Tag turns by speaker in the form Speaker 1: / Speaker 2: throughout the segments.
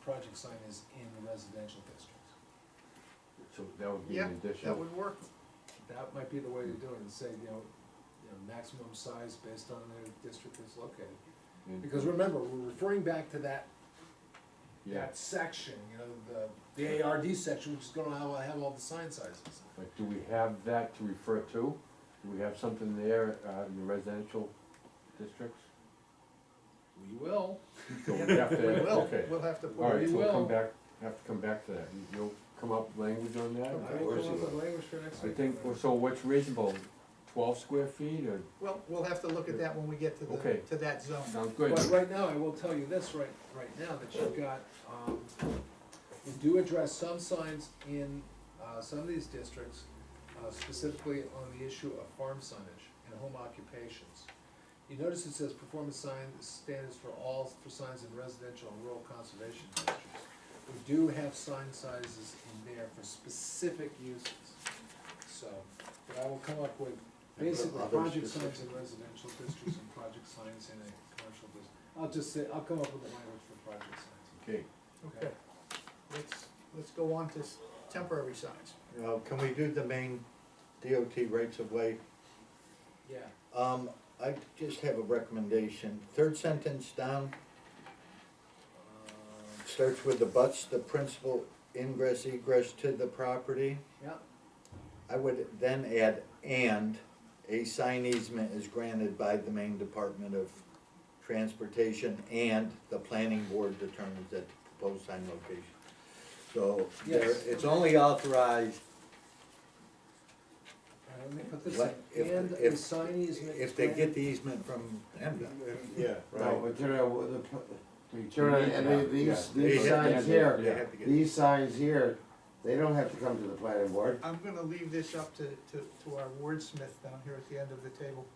Speaker 1: project sign is in residential districts.
Speaker 2: So that would be
Speaker 3: Yeah,
Speaker 2: an
Speaker 3: that
Speaker 2: additional,
Speaker 3: would work.
Speaker 1: That might be the way to do it, and say, you know, you know, maximum size based on their district is located. Because remember, we're referring back to that,
Speaker 2: yeah,
Speaker 1: that section, you know, the, the ARD section, which is gonna have, have all the sign sizes.
Speaker 2: but do we have that to refer to? Do we have something there, uh, in the residential districts?
Speaker 1: We will.
Speaker 2: So we have
Speaker 3: We
Speaker 2: to,
Speaker 3: will,
Speaker 2: okay,
Speaker 3: we'll have to put.
Speaker 2: alright, so we'll
Speaker 1: will.
Speaker 2: come back, have to come back to that, You- you'll come up with language on that?
Speaker 1: We'll come
Speaker 4: course
Speaker 1: up
Speaker 4: you
Speaker 1: with
Speaker 4: will.
Speaker 1: language for next
Speaker 2: I
Speaker 1: week.
Speaker 2: think, well, so what's reasonable, twelve square feet or,
Speaker 3: Well, we'll have to look at that when we get to the,
Speaker 2: Okay.
Speaker 3: to that zone.
Speaker 2: sounds good,
Speaker 1: But right now, I will tell you this right, right now, that you've got, um, you do address some signs in, uh, some of these districts, uh, specifically on the issue of farm signage and home occupations. You notice it says performance sign standards for all, for signs in residential and rural conservation districts. We do have sign sizes in there for specific uses, so, but I will come up with
Speaker 4: And what
Speaker 1: basically
Speaker 4: about those
Speaker 1: project signs in
Speaker 4: specific-
Speaker 1: residential districts and project signs in a commercial district. I'll just say, I'll come up with a language for project signs.
Speaker 2: okay,
Speaker 3: Okay, let's, let's go on to s- temporary signs.
Speaker 4: Now, uh, can we do the main DOT rights of way?
Speaker 1: Yeah.
Speaker 4: Um, I just have a recommendation, third sentence down,
Speaker 1: Um,
Speaker 4: starts with abuts the principal ingress egress to the property.
Speaker 1: Yeah,
Speaker 4: I would then add, and a sign easement is granted by the Maine Department of Transportation and the planning board determines that the proposed sign location. So there,
Speaker 1: Yes.
Speaker 4: it's only authorized
Speaker 1: and let me put this
Speaker 4: Let-
Speaker 1: in,
Speaker 4: if-
Speaker 1: and a
Speaker 4: if-
Speaker 1: sign easement.
Speaker 4: if they get the easement from MDOT.
Speaker 5: Yeah,
Speaker 2: no,
Speaker 5: right.
Speaker 2: but you know, the, pl- the.
Speaker 5: And they- these, these
Speaker 4: Yeah.
Speaker 5: signs here,
Speaker 4: have to get-
Speaker 5: these signs here, they don't have to come to the planning board.
Speaker 3: I'm gonna leave this up to, to, to our wordsmith down here at the end of the table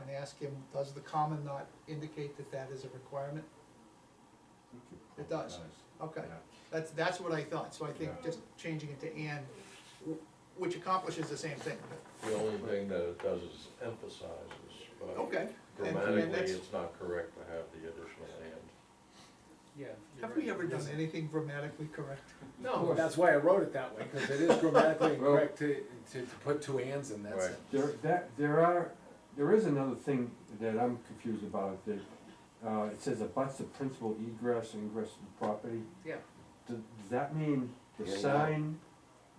Speaker 3: and ask him, does the common not indicate that that is a requirement? It does. Okay, that's, that's what I thought, so I think
Speaker 2: Yeah.
Speaker 3: just changing it to and, wh- which accomplishes the same thing, but-
Speaker 6: The only thing that it does is emphasizes, but
Speaker 3: okay. Oh, and- and that's-
Speaker 6: grammatically, it's not correct to have the additional and.
Speaker 1: Yeah. you're
Speaker 3: Have we
Speaker 1: right.
Speaker 3: ever done anything grammatically correct?
Speaker 1: No, that's why I wrote it that way, because it is grammatically
Speaker 2: Well-
Speaker 1: incorrect to, to, to put two ands in that
Speaker 6: Right.
Speaker 1: sentence.
Speaker 2: There, that, there are, there is another thing that I'm confused about, that, uh, it says abuts the principal egress and ingress to the property.
Speaker 1: Yeah.
Speaker 2: Does, does that mean the
Speaker 5: Yeah, yeah.
Speaker 2: sign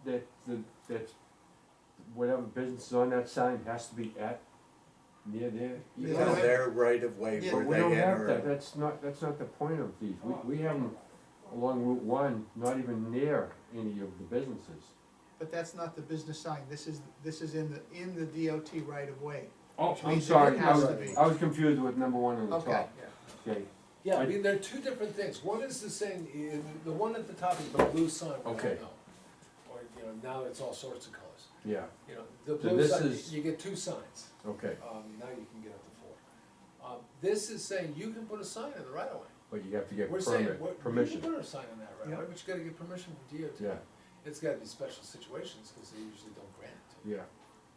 Speaker 2: that, the, that's, whatever business is on that sign has to be at, near there?
Speaker 3: Yeah.
Speaker 4: No, they're right of way
Speaker 3: Yeah.
Speaker 4: where
Speaker 2: But we
Speaker 4: they
Speaker 2: don't have
Speaker 4: enter.
Speaker 2: that,
Speaker 4: it.
Speaker 2: that's not, that's not the point of these, we, we have them along Route one, not even near any of the businesses.
Speaker 3: But that's not the business sign, this is, this is in the, in the DOT right of way.
Speaker 2: Oh,
Speaker 3: Which
Speaker 2: I'm
Speaker 3: means it
Speaker 2: sorry, I
Speaker 3: has
Speaker 2: was,
Speaker 3: to be.
Speaker 2: I was confused with number one on the
Speaker 3: Okay.
Speaker 2: top,
Speaker 1: Yeah.
Speaker 2: okay,
Speaker 1: Yeah, I
Speaker 2: I-
Speaker 1: mean, there are two different things, one is the saying, eh, the one at the top is the blue sign, we all
Speaker 2: Okay.
Speaker 1: know. Or, you know, now it's all sorts of colors,
Speaker 2: yeah,
Speaker 1: you know, the
Speaker 2: So
Speaker 1: blue
Speaker 2: this
Speaker 1: sign,
Speaker 2: is-
Speaker 1: you get two signs.
Speaker 2: okay.
Speaker 1: Um, now you can get up to four. Um, this is saying you can put a sign in the right of way.
Speaker 2: But you have to get
Speaker 1: We're saying, what,
Speaker 2: permit,
Speaker 1: you can
Speaker 2: permission,
Speaker 1: put a sign in that right of way, but you gotta get permission from DOT.
Speaker 2: yeah,
Speaker 1: It's gotta be special situations, cause they usually don't grant it.
Speaker 2: yeah.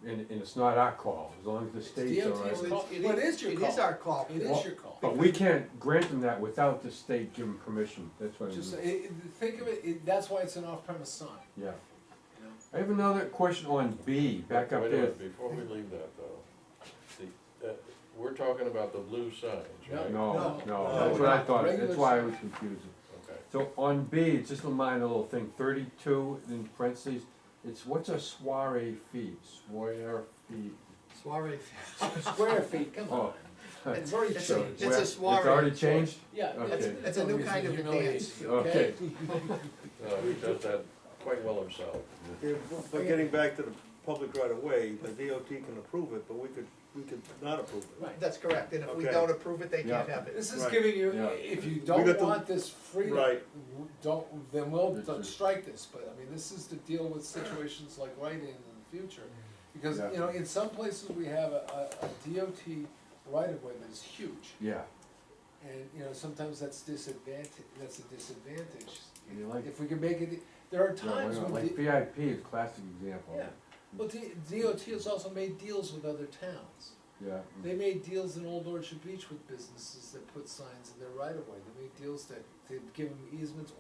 Speaker 2: And, and it's not our call, as long as the state's all
Speaker 1: DOT's
Speaker 2: right.
Speaker 1: call. But it is your
Speaker 3: It is
Speaker 1: call.
Speaker 3: our call.
Speaker 1: It is
Speaker 2: Well, oh.
Speaker 1: your call.
Speaker 2: But we can't grant them that without the state giving permission, that's what I
Speaker 1: Just,
Speaker 2: mean,
Speaker 1: eh, eh, think of it, it, that's why it's an off-premise sign,
Speaker 2: yeah.
Speaker 1: you know?
Speaker 2: I have another question on B, back up
Speaker 6: Wait a
Speaker 2: there.
Speaker 6: minute, Before we leave that though, the, uh, we're talking about the blue signs,
Speaker 1: No.
Speaker 6: right?
Speaker 2: No,
Speaker 1: No.
Speaker 2: no,
Speaker 1: No,
Speaker 2: that's what I
Speaker 1: not
Speaker 2: thought,
Speaker 1: regular
Speaker 2: that's why I was confused.
Speaker 6: Okay.
Speaker 2: So on B, it's just a minor little thing, thirty-two in parentheses, it's what's a soiree fee, soiree fee?
Speaker 3: Soiree.
Speaker 1: Square feet, come on.
Speaker 2: Oh.
Speaker 1: It's already
Speaker 3: It's
Speaker 1: changed.
Speaker 3: a-
Speaker 2: Well, It's already
Speaker 3: soiree.
Speaker 2: changed?
Speaker 1: Yeah,
Speaker 2: Okay.
Speaker 1: it's,
Speaker 3: It's a new
Speaker 1: always
Speaker 3: kind of
Speaker 1: humiliating,
Speaker 3: dance.
Speaker 1: okay?
Speaker 6: No, Uh, he does that quite well himself.
Speaker 5: Yeah, but- But getting back to the public right of way, the DOT can approve it, but we could, we could not approve it.
Speaker 1: Right.
Speaker 3: That's correct, and if we
Speaker 5: Okay.
Speaker 3: don't approve it, they can't
Speaker 2: Yeah.
Speaker 3: have it.
Speaker 1: This is
Speaker 5: Right.
Speaker 1: giving you,
Speaker 2: Yeah.
Speaker 1: if you
Speaker 5: got
Speaker 1: don't
Speaker 5: the-
Speaker 1: want this freedom,
Speaker 5: Right.
Speaker 1: w- don't, then we'll
Speaker 2: It's
Speaker 1: d-
Speaker 2: just-
Speaker 1: strike this, but I mean, this is to deal with situations like writing in the future. Because,
Speaker 2: Yeah.
Speaker 1: you know, in some places we have a, a a DOT right of way that is huge,
Speaker 2: Yeah,
Speaker 1: and, you know, sometimes that's disadvantage, that's a disadvantage.
Speaker 2: And you like-
Speaker 1: If we can make it, there are
Speaker 2: Yeah, why
Speaker 1: times
Speaker 2: not?
Speaker 1: when.
Speaker 2: like
Speaker 1: the-
Speaker 2: VIP is a classic example.
Speaker 1: Yeah, well, D- DOT has also made deals with other towns.
Speaker 2: Yeah. mm.
Speaker 1: They made deals in Old Orchard Beach with businesses that put signs in their right of way, they made deals that, they'd give them easements